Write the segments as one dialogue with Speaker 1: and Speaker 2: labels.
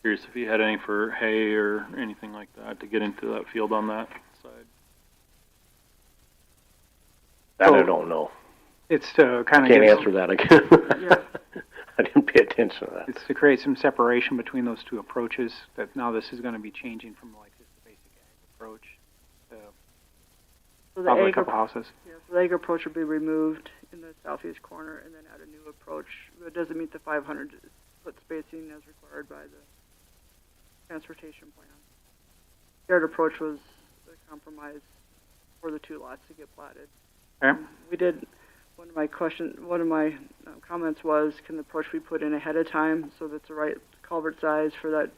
Speaker 1: Curious if you had any for hay or anything like that to get into that field on that side.
Speaker 2: That I
Speaker 3: So-
Speaker 2: don't know.
Speaker 3: It's to kind of
Speaker 2: Can't
Speaker 3: Oh. get,
Speaker 2: answer
Speaker 3: some-
Speaker 2: that again. I didn't pay attention to that.
Speaker 3: it's to create some separation between those two approaches, that now this is gonna be changing from like just the basic ag approach to
Speaker 4: So the
Speaker 3: probably a
Speaker 4: egg,
Speaker 3: couple
Speaker 4: yeah,
Speaker 3: houses.
Speaker 4: so the egg approach would be removed in the southeast corner and then add a new approach that doesn't meet the five hundred foot spacing as required by the transportation plan. Shared approach was the compromise for the two lots to get platted. Um,
Speaker 3: Okay.
Speaker 4: We did, one of my question, one of my um, comments was, can the approach be put in ahead of time so that's the right culvert size for that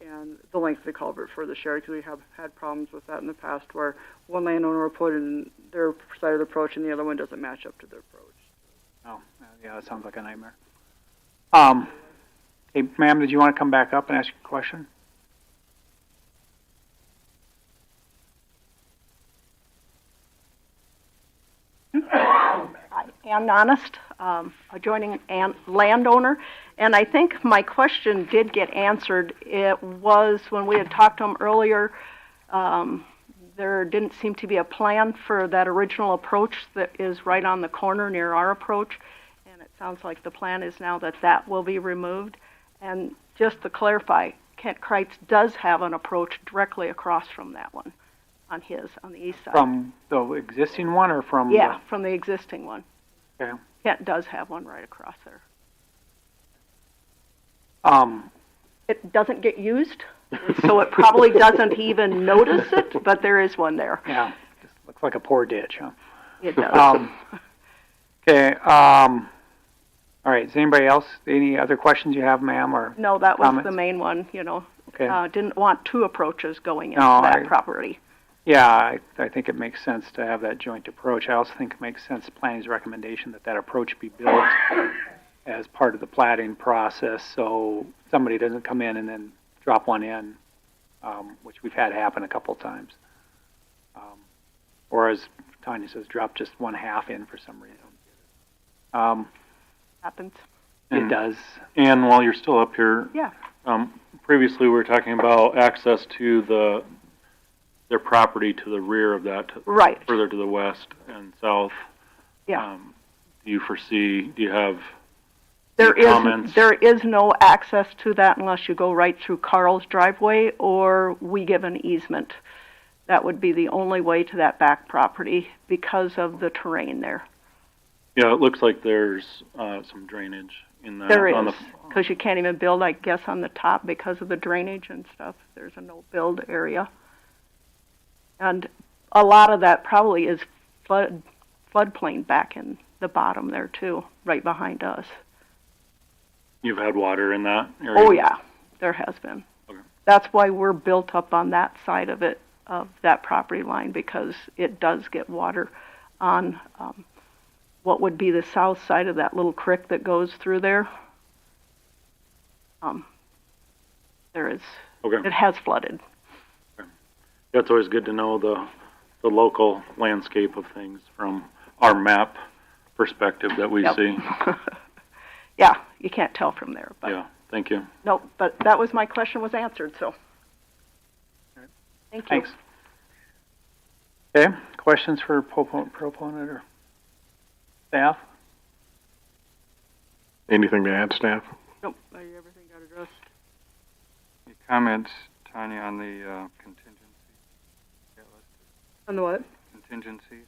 Speaker 4: and the length of the culvert for the shared, because we have had problems with that in the past where one landowner will put in their side of the approach and the other one doesn't match up to their approach.
Speaker 3: Oh, yeah, that sounds like a nightmare. Um, hey, ma'am, did you wanna come back up and ask a question?
Speaker 5: I am honest, um, adjoining an landowner, and I think my question did get answered. It was when we had talked to him earlier, um, there didn't seem to be a plan for that original approach that is right on the corner near our approach, and it sounds like the plan is now that that will be removed. And just to clarify, Kent Kreitz does have an approach directly across from that one, on his, on the east side.
Speaker 3: From the existing one or from? the-
Speaker 5: Yeah, from the existing one.
Speaker 3: Okay.
Speaker 5: Kent does have one right across there.
Speaker 3: Um,
Speaker 5: It doesn't get used, so it probably doesn't even notice it, but there is one there.
Speaker 3: yeah, just looks like a poor ditch, huh?
Speaker 5: It does.
Speaker 3: Um, okay, um, all right, is anybody else, any other questions you have, ma'am, or,
Speaker 5: No, that was the
Speaker 3: comments?
Speaker 5: main one, you know,
Speaker 3: okay?
Speaker 5: uh, didn't want two approaches going into
Speaker 3: No, I-
Speaker 5: that property.
Speaker 3: Yeah, I, I think it makes sense to have that joint approach. I also think it makes sense, planning's recommendation, that that approach be built as part of the plating process, so somebody doesn't come in and then drop one in, um, which we've had happen a couple times. Um, or as Tanya says, drop just one half in for some reason. Um,
Speaker 5: Happens.
Speaker 3: it
Speaker 1: Mm.
Speaker 3: does,
Speaker 1: And while you're still up here.
Speaker 5: Yeah.
Speaker 1: Um, previously, we were talking about access to the, their property to the rear of that, to-
Speaker 5: Right.
Speaker 1: further to the west and south.
Speaker 5: Yeah.
Speaker 1: Um, Do you foresee, do you have,
Speaker 5: There
Speaker 1: comments?
Speaker 5: is, there is no access to that unless you go right through Carl's driveway or we give an easement. That would be the only way to that back property because of the terrain there.
Speaker 1: yeah, it looks like there's, uh, some drainage in that.
Speaker 5: There
Speaker 1: on the-
Speaker 5: is, because you can't even build, I guess, on the top because of the drainage and stuff. There's a no-build area. And a lot of that probably is flood, floodplain back in the bottom there too, right behind us.
Speaker 1: You've had water in that area?
Speaker 5: Oh, yeah, there has been.
Speaker 1: Okay.
Speaker 5: That's why we're built up on that side of it, of that property line, because it does get water on, um, what would be the south side of that little creek that goes through there. Um, there is,
Speaker 1: Okay.
Speaker 5: it has flooded.
Speaker 1: That's always good to know the, the local landscape of things from our map perspective that we
Speaker 5: Yep.
Speaker 1: see.
Speaker 5: Yeah, you can't tell from there, but,
Speaker 1: Yeah, thank you.
Speaker 5: no, but that was, my question was answered, so. Thank you.
Speaker 3: thanks. Okay, questions for proponent, proponent or staff?
Speaker 6: Anything to add, staff?
Speaker 4: Nope. Everything got addressed.
Speaker 7: Any comments, Tanya, on the uh, contingency? Yeah, let's-
Speaker 4: On the what?
Speaker 7: Contingencies?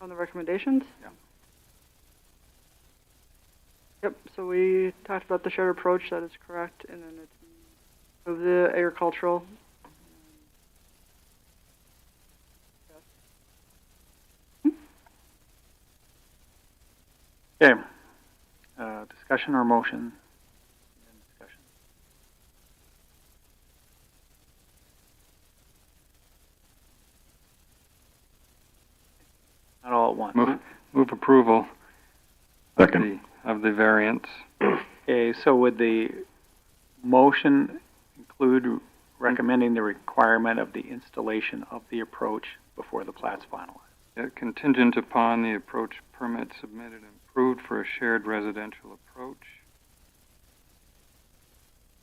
Speaker 4: On the recommendations?
Speaker 7: Yeah.
Speaker 4: Yep, so we talked about the shared approach, that is correct, and then it's of the agricultural.
Speaker 3: Okay, uh, discussion or motion? Discussion. Not all at once.
Speaker 7: Move, move approval of
Speaker 6: Second.
Speaker 7: the, of the variance.
Speaker 3: Okay, so would the motion include recommending the requirement of the installation of the approach before the plat's finalized?
Speaker 7: Yeah, Contingent upon the approach permit submitted and approved for a shared residential approach.